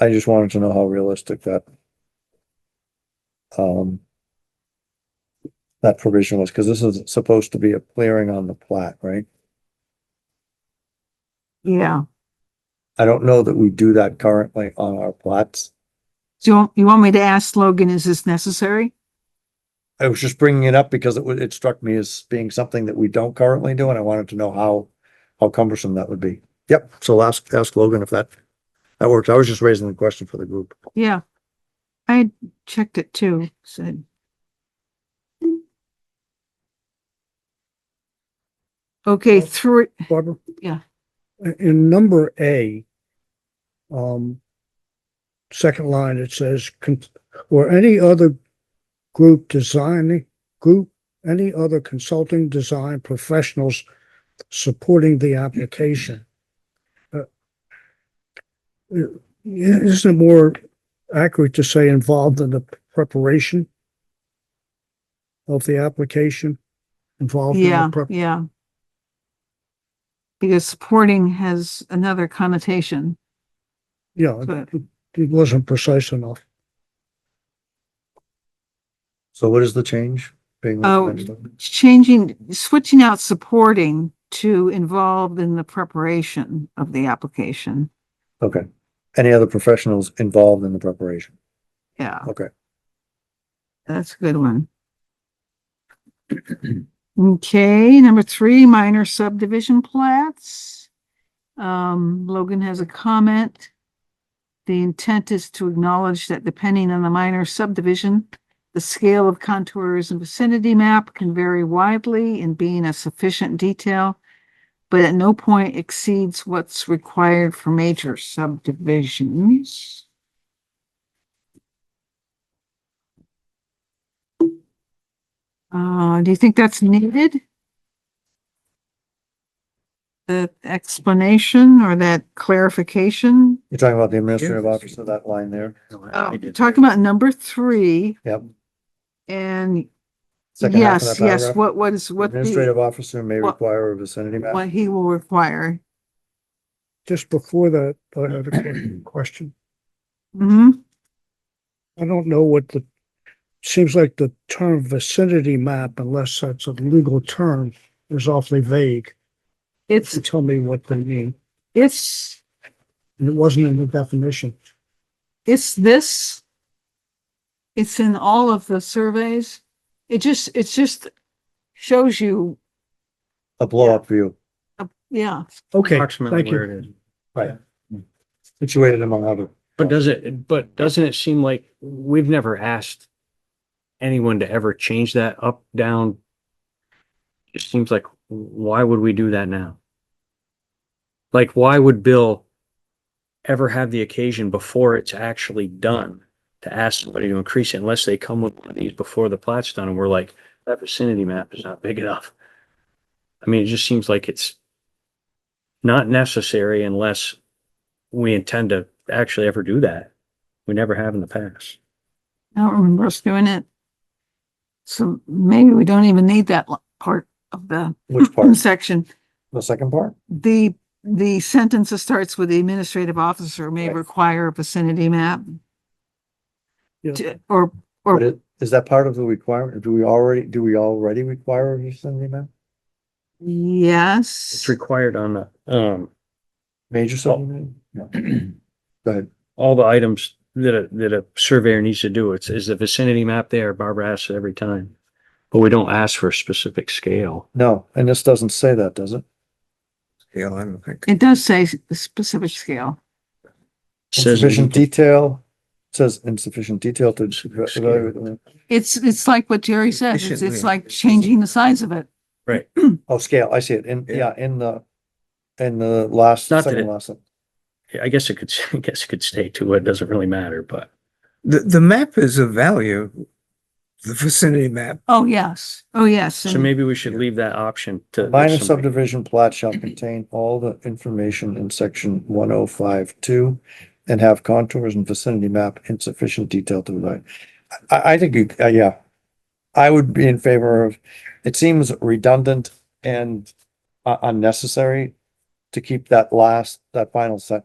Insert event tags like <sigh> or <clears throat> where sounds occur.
I just wanted to know how realistic that um that provision was, because this is supposed to be a clearing on the plat, right? Yeah. I don't know that we do that currently on our plats. Do you want, you want me to ask Logan, is this necessary? I was just bringing it up because it wa- it struck me as being something that we don't currently do, and I wanted to know how how cumbersome that would be. Yep, so ask ask Logan if that that works. I was just raising the question for the group. Yeah. I had checked it too, said. Okay, three, Barbara? Yeah. In- In number A, um, second line, it says, "Con- or any other group designing, group, any other consulting design professionals supporting the application. Uh, i- Isn't it more accurate to say involved in the preparation of the application? Involved in yeah, the prep, yeah. Because supporting has another connotation, yeah, but it wasn't precise enough. So what is the change? being Oh. recommended? changing, switching out supporting to involved in the preparation of the application. Okay. Any other professionals involved in the preparation? Yeah. Okay. That's a good one. Okay, number three, minor subdivision plats. Um, Logan has a comment. The intent is to acknowledge that depending on the minor subdivision, the scale of contours and vicinity map can vary widely in being of sufficient detail, but at no point exceeds what's required for major subdivisions. Uh, do you think that's needed? The explanation or that clarification? You're talking about the administrative officer, that line there? Oh, talking about number three. Yep. And Second half of yes, that yes, paragraph? what, what is, what the, Administrative officer may what- require a vicinity map. what he will require. just before that, I have <clears throat> a que- question. hmm I don't know what the, seems like the term vicinity map, unless that's a legal term, is awfully vague. It's, Tell me what they mean. it's, And it wasn't in the definition. it's this. It's in all of the surveys. It just, it's just shows you, A blow-up view, uh, yeah. Okay, approximately thank where you. it is. situated among other. But does it, but doesn't it seem like we've never asked anyone to ever change that up, down? It seems like, why would we do that now? Like, why would Bill ever have the occasion before it's actually done to ask somebody to increase it unless they come with one of these before the plat's done and we're like, that vicinity map is not big enough? I mean, it just seems like it's not necessary unless we intend to actually ever do that. We never have in the past. I don't remember us doing it. So maybe we don't even need that lo- part of the Which part? section. The second part? The, the sentence that starts with the administrative officer may Right. require a vicinity map. Yeah. to- Or, But or it, is that part of the requirement? Do we already, do we already require a vicinity map? yes, It's required on the, um, Oh. Major subdivision? No. <clears throat> Go ahead. all the items that a, that a surveyor needs to do. It's, is the vicinity map there? Barbara asks it every time. But we don't ask for a specific scale. No, and this doesn't say that, does it? Yeah, I don't think. it does say s- the specific scale. It Says, Insufficient detail, says insufficient detail to Specific scale. evaluate. It's, it's like what Jerry says, it's, it's like changing the size of it. right, Oh, scale, I see it, in, Yeah. yeah, in the, in the last, Not that second it- last. sen- I guess it could, <laughs> I guess it could stay to it. Doesn't really matter, but The, the map is of value, the vicinity map. Oh, yes. Oh, yes. so and- maybe we should leave that option to. Minor somebody. subdivision plat shall contain all the information in section one oh five two and have contours and vicinity map in sufficient detail to provide. I, I think, you- uh, yeah. I would be in favor of, it seems redundant and uh, unnecessary to keep that last, that final sentence.